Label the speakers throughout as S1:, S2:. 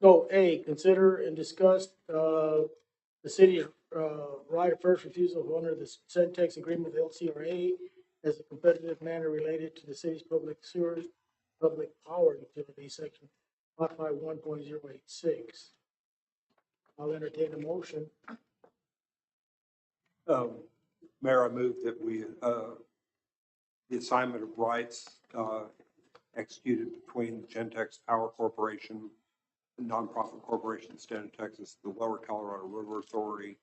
S1: So A, consider and discuss, uh, the city's, uh, right of first refusal under the said text agreement with LCRA as a competitive manner related to the city's public sewer, public power utility section modified one point zero eight six. I'll entertain a motion.
S2: Um, Mayor, I move that we, uh, the assignment of rights uh, executed between Gentex Power Corporation, a nonprofit corporation in the state of Texas, the Lower Colorado River Authority,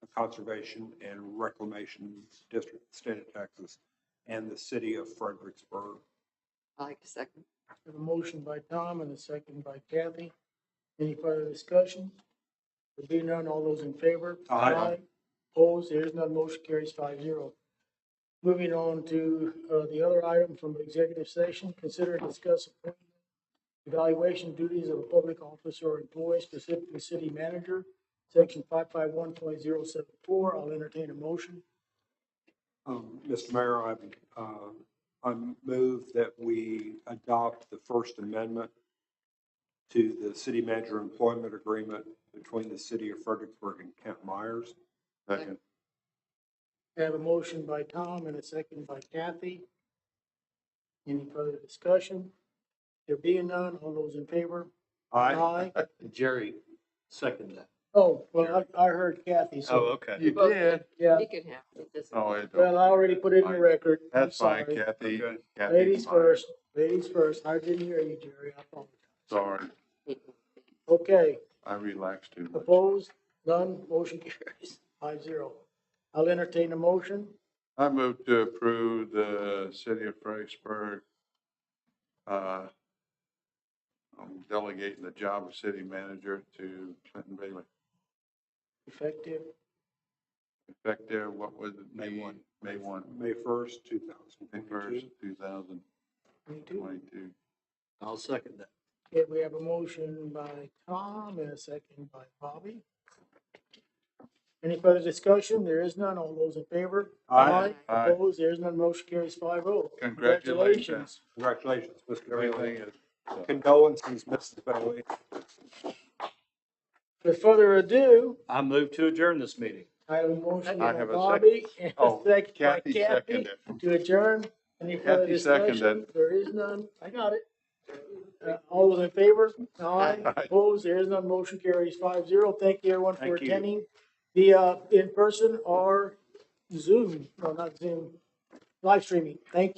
S2: the Conservation and Reclamation District, of the state of Texas, and the city of Fredericksburg.
S3: I like the second.
S1: Have a motion by Tom and a second by Kathy. Any further discussion? There being none, all those in favor?
S2: Aye.
S1: Opposed, there is none, motion carries five zero. Moving on to, uh, the other item from executive session, consider and discuss appointment, evaluation duties of a public officer or employee, specifically city manager, section five five one point zero seven four. I'll entertain a motion.
S2: Um, Mr. Mayor, I, uh, I move that we adopt the First Amendment to the city manager employment agreement between the city of Fredericksburg and Kent Myers.
S3: Second.
S1: I have a motion by Tom and a second by Kathy. Any further discussion? There being none, all those in favor?
S2: Aye.
S4: Jerry seconded that.
S1: Oh, well, I, I heard Kathy,
S4: Oh,
S1: so,
S4: okay.
S5: You
S3: Vote.
S5: did.
S1: yeah,
S3: You can have it. this
S5: Oh,
S3: one.
S5: it
S1: well,
S5: don't.
S1: I already put it in the record. I'm
S5: That's fine,
S1: sorry.
S5: Kathy.
S4: Okay.
S5: Kathy,
S1: Ladies
S5: come on.
S1: first, ladies first, I didn't hear you, Jerry, I apologize.
S5: Sorry,
S1: Okay,
S5: I relaxed too much.
S1: opposed, none, motion carries, five zero. I'll entertain a motion,
S5: I move to approve the city of Fredericksburg, uh, um, delegating the job of city manager to Clinton Bailey.
S1: effective
S5: Effective, what was it?
S4: May one.
S5: May one,
S2: May first, two
S5: May
S2: thousand
S5: first,
S2: twenty-two.
S5: two thousand
S1: twenty-two.
S5: twenty-two.
S4: I'll second that.
S1: Okay, we have a motion by Tom and a second by Bobby. Any further discussion? There is none. All those in favor?
S2: Aye.
S5: Aye.
S1: Opposed? There is none. Motion carries five oh.
S5: Congratulations.
S2: Congratulations, Mr.
S5: Everything
S2: Bailey.
S5: is,
S2: Condolences, Mrs. Bailey.
S1: With further ado,
S4: I move to adjourn this meeting.
S1: I have a motion
S5: I
S1: by
S5: have a
S1: Bobby and a
S5: oh,
S1: second by Kathy
S5: Kathy seconded.
S1: to adjourn. Any further
S5: Kathy seconded.
S1: discussion? There is none. I got it. Uh, All those in favor? Aye.
S5: Aye.
S1: Opposed? There is none. Motion carries five zero. Thank you everyone for
S4: Thank you.
S1: attending. The, uh, in person or Zoom, no, not Zoom, live streaming. Thank you.